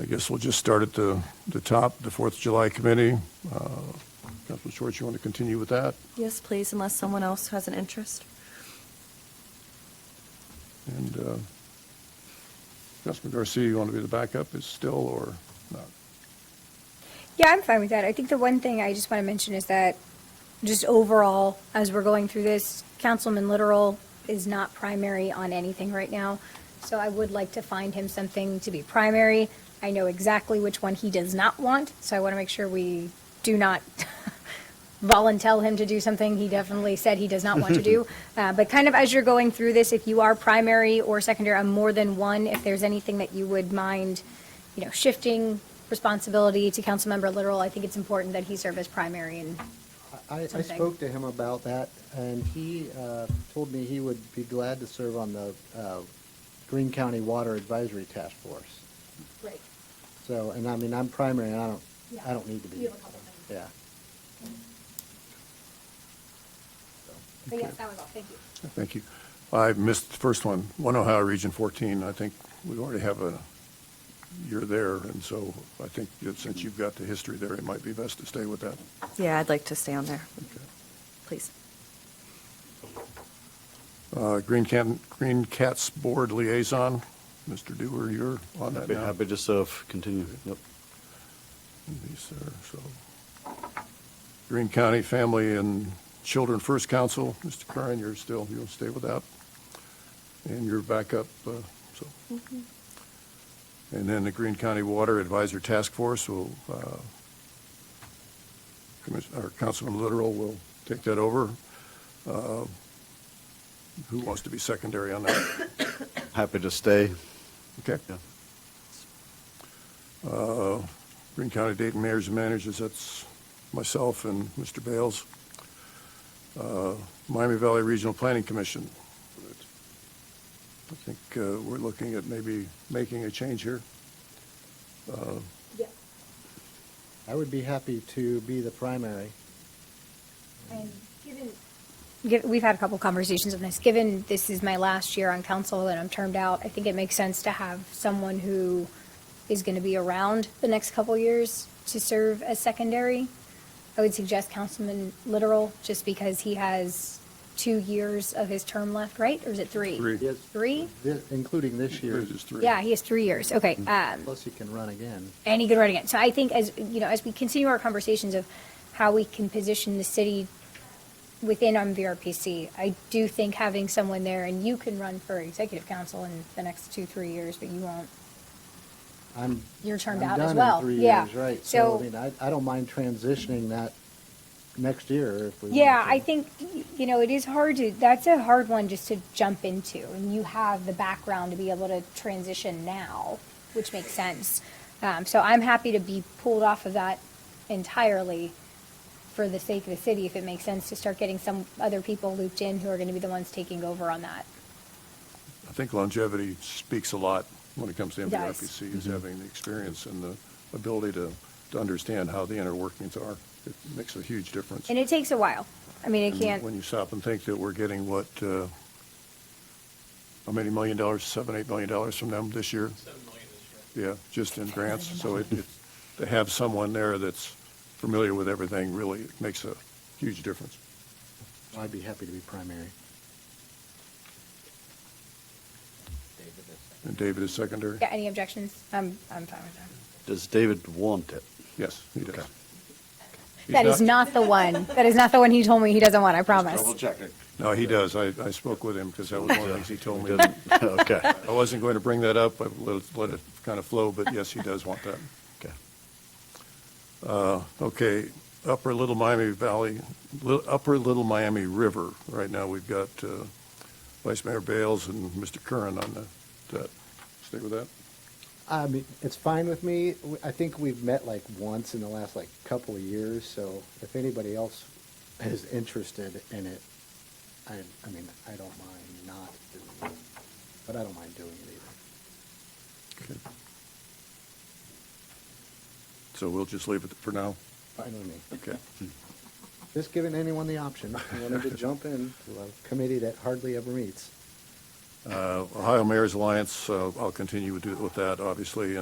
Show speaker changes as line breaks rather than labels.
I guess we'll just start at the, the top, the Fourth of July Committee. Uh, Councilman Schwartz, you want to continue with that?
Yes, please, unless someone else has an interest.
And uh, Councilman Garcia, you want to be the backup is still or not?
Yeah, I'm fine with that. I think the one thing I just want to mention is that just overall, as we're going through this, Councilman Literal is not primary on anything right now. So I would like to find him something to be primary. I know exactly which one he does not want, so I want to make sure we do not volunteer him to do something he definitely said he does not want to do. Uh, But kind of as you're going through this, if you are primary or secondary on more than one, if there's anything that you would mind, you know, shifting responsibility to Councilmember Literal, I think it's important that he serve as primary and
I, I
something.
spoke to him about that, and he uh, told me he would be glad to serve on the uh, Green County Water Advisory Task Force.
Right.
So, and I mean, I'm primary, and I don't,
Yeah.
I don't need to be.
You have a couple things.
Yeah.
But yes, that was all. Thank you.
Thank you. I missed the first one, One Ohio Region 14. I think we already have a, you're there, and so I think that since you've got the history there, it might be best to stay with that.
Yeah, I'd like to stay on there,
Okay.
please.
Uh, Green Can, Green Cats Board Liaison, Mr. Dewar, you're on that
Happy,
now.
happy to serve, continue, yep.
Yes, sir, so. Green County Family and Children First Council, Mr. Curran, you're still, you'll stay with that. And you're back up, uh, so. And then the Green County Water Advisor Task Force will, uh, Commis- or Councilman Literal will take that over. Uh, Who wants to be secondary on that?
Happy to stay,
Okay.
yeah.
Uh, Green County Dayton Mayors and Managers, that's myself and Mr. Bales. Uh, Miami Valley Regional Planning Commission. I think uh, we're looking at maybe making a change here.
Yeah,
I would be happy to be the primary.
and given. Giv- We've had a couple conversations on this. Given this is my last year on council and I'm termed out, I think it makes sense to have someone who is going to be around the next couple years to serve as secondary. I would suggest Councilman Literal, just because he has two years of his term left, right? Or is it three?
Three.
Yes.
Three?
Thi- Including this year,
There's just three.
Yeah, he has three years. Okay. Um,
plus he can run again.
and he could run again. So I think as, you know, as we continue our conversations of how we can position the city within MVRPC, I do think having someone there, and you can run for executive council in the next two, three years, but you won't,
I'm.
you're termed
I'm
out
done
as
in
well.
three
Yeah.
years, Right, so I
So,
mean, I, I don't mind transitioning that next year if we.
yeah,
wanted
I
to.
think, y- you know, it is hard to, that's a hard one just to jump into. And you have the background to be able to transition now, which makes sense. Um, so I'm happy to be pulled off of that entirely. for the sake of the city, if it makes sense to start getting some other people looped in who are going to be the ones taking over on that.
I think longevity speaks a lot when it comes to
It does.
MVRPC,
Mm-hmm.
is having the experience and the ability to, to understand how the inner workings are. It makes a huge difference.
And it takes a while. I mean, it
And When
can't,
you stop and think that we're getting what, uh, how many million dollars, seven, eight million dollars from them this year?
Seven million this
Yeah, just in grants. So it, it- to have someone there that's familiar with everything really makes a huge difference.
I'd be happy to be primary.
year. David is-
And David is secondary?
yeah, any objections? I'm, I'm fine with that.
Does David want it?
Yes, he does. He's
That is not the one. That is not the one he told me he doesn't want, I promise.
checking.
No, he does. I, I spoke with him because that was one of the things he told me.
Okay,
I wasn't going to bring that up. I let it, let it kind of flow, but yes, he does want that.
okay.
Okay, Upper Little Miami Valley, Li- Upper Little Miami River, right now we've got uh, Vice Mayor Bales and Mr. Curran on the- that. Stay with that?
I mean, it's fine with me. W- I think we've met like once in the last like couple of years, so if anybody else is interested in it, I, I mean, I don't mind not doing it, but I don't mind doing it either.
Okay. So we'll just leave it for now?
Fine with me.
Okay.
Just giving anyone the option, who wanted to jump in to a committee that hardly ever meets.
Uh, Ohio Mayor's Alliance, uh, I'll continue with with that, obviously,